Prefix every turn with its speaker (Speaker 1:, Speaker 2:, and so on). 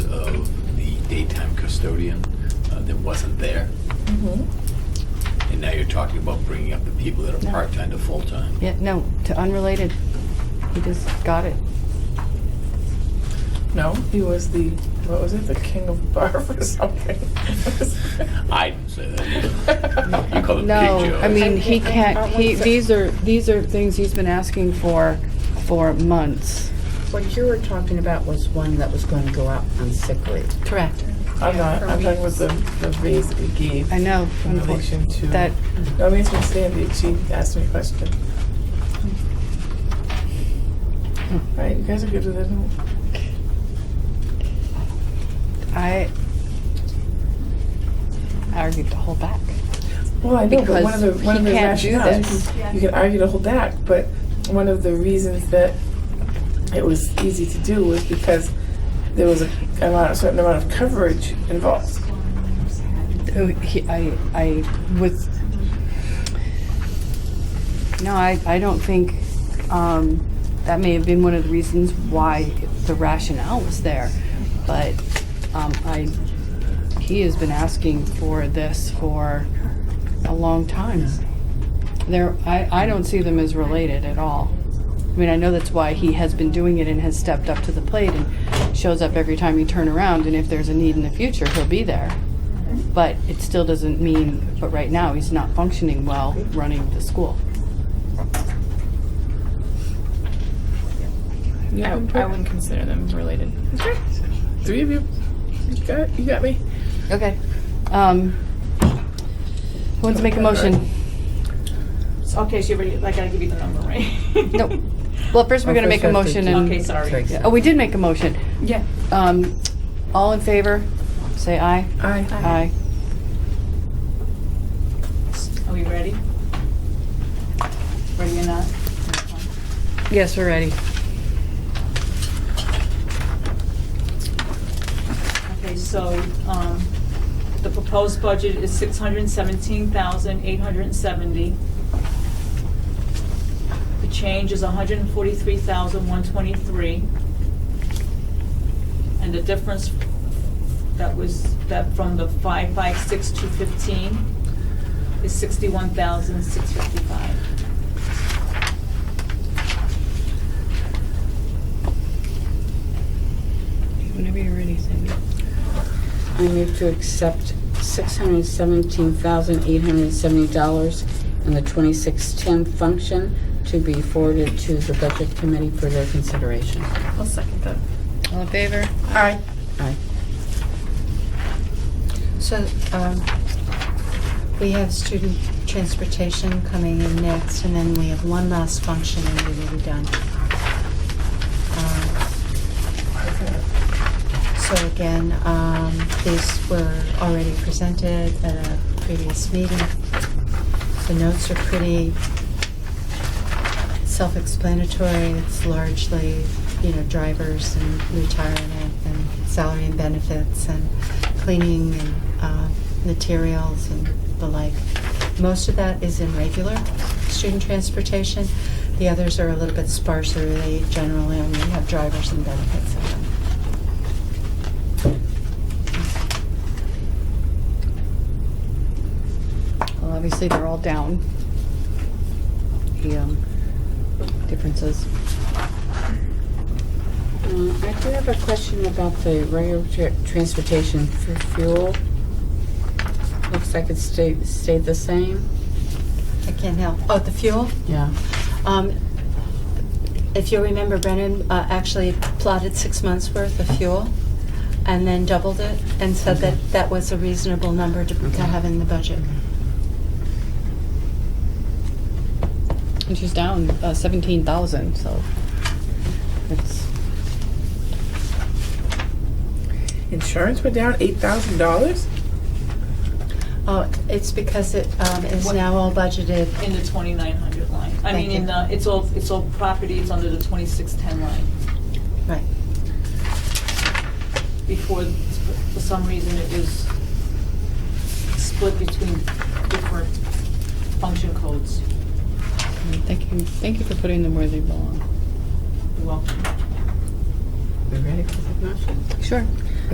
Speaker 1: custodian uh, that wasn't there.
Speaker 2: Mm-hmm.
Speaker 1: And now you're talking about bringing up the people that are
Speaker 2: No.
Speaker 1: part-time to full-time.
Speaker 2: Yeah, no, to unrelated. He just got it.
Speaker 3: No, he was the what was it? The king of barf or something.
Speaker 1: I didn't say that. You call it
Speaker 2: No,
Speaker 1: Big Joe.
Speaker 2: I mean,
Speaker 3: I-
Speaker 2: he
Speaker 3: I- I
Speaker 2: can't, he,
Speaker 3: want to-
Speaker 2: these are, these are things he's been asking for, for months.
Speaker 4: What you were talking about was one that was going to go out on sick leave.
Speaker 2: Correct.
Speaker 3: I'm not. I'm talking about the the raise that we gave
Speaker 2: I know,
Speaker 3: in relation to
Speaker 2: that,
Speaker 3: No, it makes me stand it. She asked me a question.
Speaker 2: Hmm.
Speaker 3: Right, you guys are good with it.
Speaker 2: I argued to hold back.
Speaker 3: Well, I know, but one of the
Speaker 2: Because
Speaker 3: one of the
Speaker 2: he can't do
Speaker 3: rationales
Speaker 2: this.
Speaker 3: you can, you can argue to hold back, but one of the reasons that it was easy to do was because there was a, amount, a certain amount of coverage involved.
Speaker 2: Oh, he- I, I was, no, I, I don't think, um, that may have been one of the reasons why the rationale was there. But, um, I, he has been asking for this for a long time. There, I, I don't see them as related at all. I mean, I know that's why he has been doing it and has stepped up to the plate and shows up every time you turn around, and if there's a need in the future, he'll be there. But it still doesn't mean, but right now, he's not functioning well running the school.
Speaker 3: You
Speaker 5: I,
Speaker 3: can put-
Speaker 5: I wouldn't consider them related.
Speaker 3: Okay. Three of you. You got, you got me?
Speaker 2: Okay. Um, who wants to make a motion?
Speaker 5: Okay, so you like I give you the number, right?
Speaker 2: Nope. Well, first
Speaker 4: Oh,
Speaker 2: we're gonna make a motion
Speaker 5: Okay,
Speaker 2: and,
Speaker 5: sorry.
Speaker 2: oh, we did make a motion.
Speaker 5: Yeah.
Speaker 2: Um, all in favor, say aye.
Speaker 3: Aye.
Speaker 2: Aye.
Speaker 5: Are we ready? Ready or not?
Speaker 2: Yes, we're ready.
Speaker 5: Okay, so, um, the proposed budget is six hundred and seventeen thousand, eight hundred and seventy. The change is 143,123, And the difference that was, that from the five, five, six, two fifteen is sixty-one thousand, six fifty-five.
Speaker 2: Whenever you're ready, Cindy.
Speaker 4: I move to accept $617,870 in the 2610 function to be forwarded to the Budget Committee for their consideration.
Speaker 3: I'll second that.
Speaker 2: All in favor?
Speaker 3: Aye.
Speaker 4: Aye.
Speaker 6: So, um, we have student transportation coming in next, and then we have one last function and we will be done. Um, So again, um, these were already presented at a previous meeting. The notes are pretty self-explanatory. It's largely, you know, drivers and retirement and salary and benefits and cleaning and uh, materials and the like. Most of that is in regular student transportation. The others are a little bit sparser. They generally only have drivers and benefits in them.
Speaker 2: Well, obviously, they're all down. The, um, differences.
Speaker 4: Uh, I do have a question about the regular tra- transportation for fuel. Looks like it stayed, stayed the same.
Speaker 6: I can't help. Oh, the fuel?
Speaker 4: Yeah.
Speaker 6: Um, If you remember, Brennan uh, actually plotted six months' worth of fuel and then doubled it and said that that was a reasonable number to to
Speaker 4: Okay.
Speaker 6: have in the budget.
Speaker 2: And she's down uh, 17,000, so it's,
Speaker 3: Insurance went down eight thousand dollars?
Speaker 6: Oh, it's because it um, is
Speaker 5: What-
Speaker 6: now all budgeted.
Speaker 5: In the twenty-nine hundred line. I
Speaker 6: Thank
Speaker 5: mean, in
Speaker 6: you.
Speaker 5: the, it's all, it's all property, it's under the twenty-six-ten line.
Speaker 6: Right.
Speaker 5: before, for some reason, it was split between different function codes.
Speaker 2: thank you, thank you for putting them where they belong.
Speaker 5: You're welcome.
Speaker 4: We ready for the motion?
Speaker 2: Sure.